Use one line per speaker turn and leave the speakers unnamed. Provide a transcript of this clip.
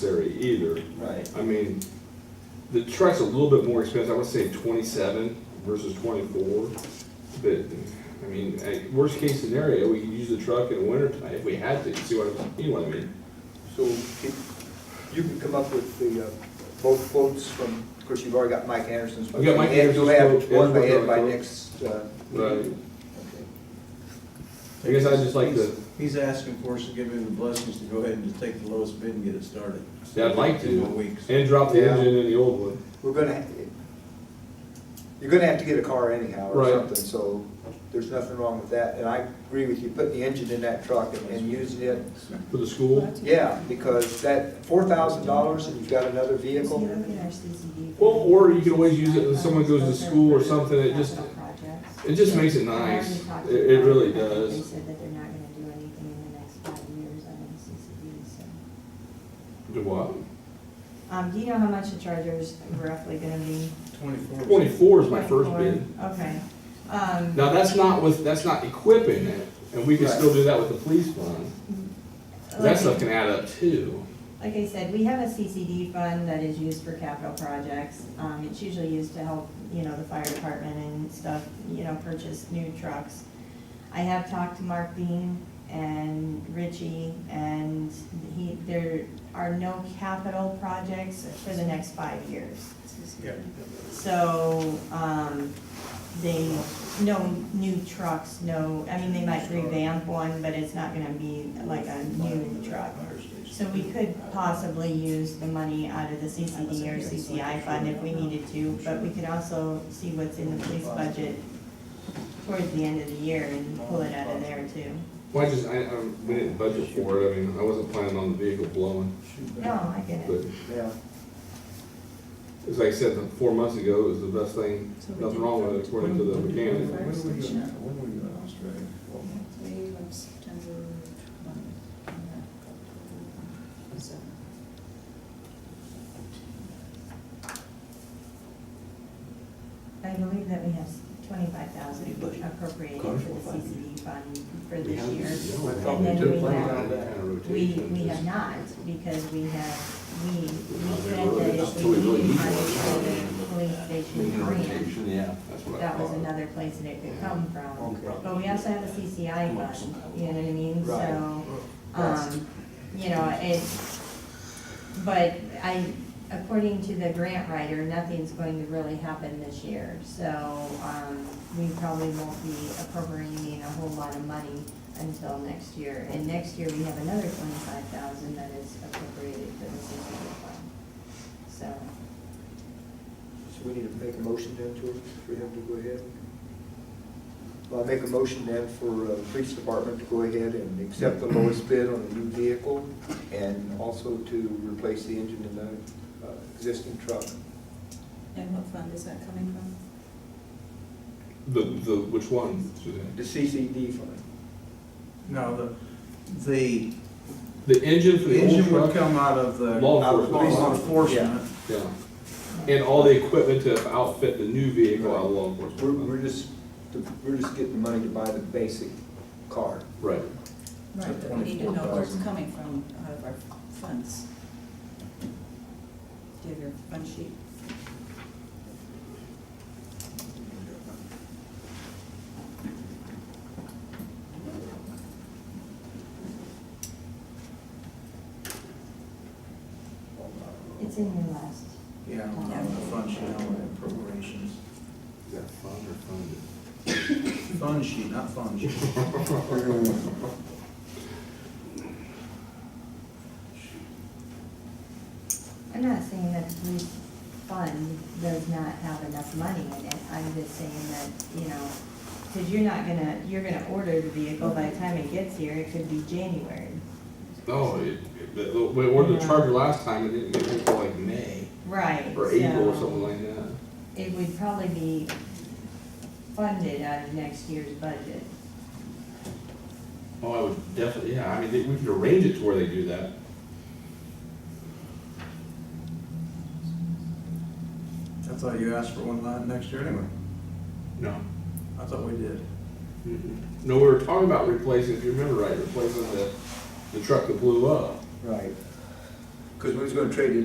either.
Right.
I mean, the truck's a little bit more expensive, I would say twenty-seven versus twenty-four. But, I mean, at worst case scenario, we could use the truck in the winter time if we had to, see what, I- you know what I mean?
So if you can come up with the, uh, both quotes from, of course, you've already got Mike Anderson's. but
I've got Mike Anderson's
You'll have
quote,
one by
Edward's
Ed by
quote.
next, uh.
Right.
Okay.
I guess I'd just like to,
He's- He's asking for us to give him the blessings to go ahead and just take the lowest bid and get it started.
Yeah, I'd like to.
In one week.
and drop the
Yeah.
engine in the old one.
We're gonna, ha- you're gonna have to get a car anyhow or
Right.
something, so there's nothing wrong with that. And I agree with you, putting the engine in that truck and- and using it,
For the school?
yeah, because that four thousand dollars and you've got another vehicle,
Well, or you can always use it when someone goes to school or something, it just- it just makes it nice. It- it really does.
They said that they're not gonna do anything in the next five years on NCCD, so.
Do what?
Um, do you know how much the charger's roughly gonna be?
Twenty-four.
Twenty-four is my first
24?
bid.
Okay, um,
Now, that's not with, that's not equipping it, and we can
Right.
still do that with the police fund. That stuff
like,
can add up too.
like I said, we have a CCD fund that is used for capital projects. Um, it's usually used to help, you know, the fire department and stuff, you know, purchase new trucks. I have talked to Mark Bean and Richie, and he, there are no capital projects for the next five years.
Yeah.
So, um, they, no new trucks, no, I mean, they might revamp one, but it's not gonna be like a new truck. So we could possibly use the money out of the CCD or CCI fund if we needed to, but we could also see what's in the police budget towards the end of the year and pull it out of there too.
Well, I just, I, I, we didn't budget for it, I mean, I wasn't planning on the vehicle blowing,
No, I get
but
it.
yeah.
it's like I said, the- four months ago, it was the best thing, nothing wrong with it according to the mechanic.
When were we going, when were we going to Australia?
Three of September twenty. and that got to uh, seven.
I believe that we have twenty-five thousand appropriated for the CCD fund for
We
this
haven't-
year.
no, we
And
haven't
then
done
we
that
have-
kind of
We,
rotation.
we have not, because we have, we, we
Not
said
really,
that
not
if
till we
we
really
needed
need
money
one.
for the police station grant,
yeah.
That's what I
that was
thought.
another place that it could come from.
Okay.
But we also have a CCI fund, you know what I mean,
Right.
so,
Yes.
um, you know, it, but I, according to the grant writer, nothing's going to really happen this year, so, um, we probably won't be appropriating a whole lot of money until next year, and next year we have another twenty-five thousand that is appropriated for the CCD fund, so.
So we need to make a motion then to, for him to go ahead? Well, I make a motion then for uh, the police department to go ahead and accept the lowest bid on the new vehicle and also to replace the engine in the uh, existing truck.
And what fund is that coming from?
The, the, which one, Suzanne?
The CCD fund.
No, the, the
The engine for
the
the old
engine
truck?
would come out of the
Law
Out of the
enforcement.
law
police.
enforcement.
Yeah, and all the equipment to outfit the new vehicle out of law
We're,
enforcement.
we're just, we're just getting the money to buy the basic car.
Right,
Right, but we need to know where it's
24,000.
coming from, out of our funds. Do you have your fund sheet?
It's in your last.
Yeah, on the fund sheet, on the appropriations.
is that fund or funded?
Fund sheet, not fund sheet.
I'm not saying that the police fund does not have enough money in it, I'm just saying that, you know, because you're not gonna, you're gonna order the vehicle by the time it gets here, it could be January.
No, it, it- the- the- we ordered the Charger last time, it didn't get here until like May,
Right.
or April or
so
something like that.
It would probably be funded out of next year's budget.
Oh, I would definitely, yeah, I mean, they- we could arrange it to where they do that.
I thought you asked for one line next year anyway.
No.
I thought we did.
No, we were talking about replacing, if you remember right, replacing the, the truck that blew up.
Right. Because we was gonna trade it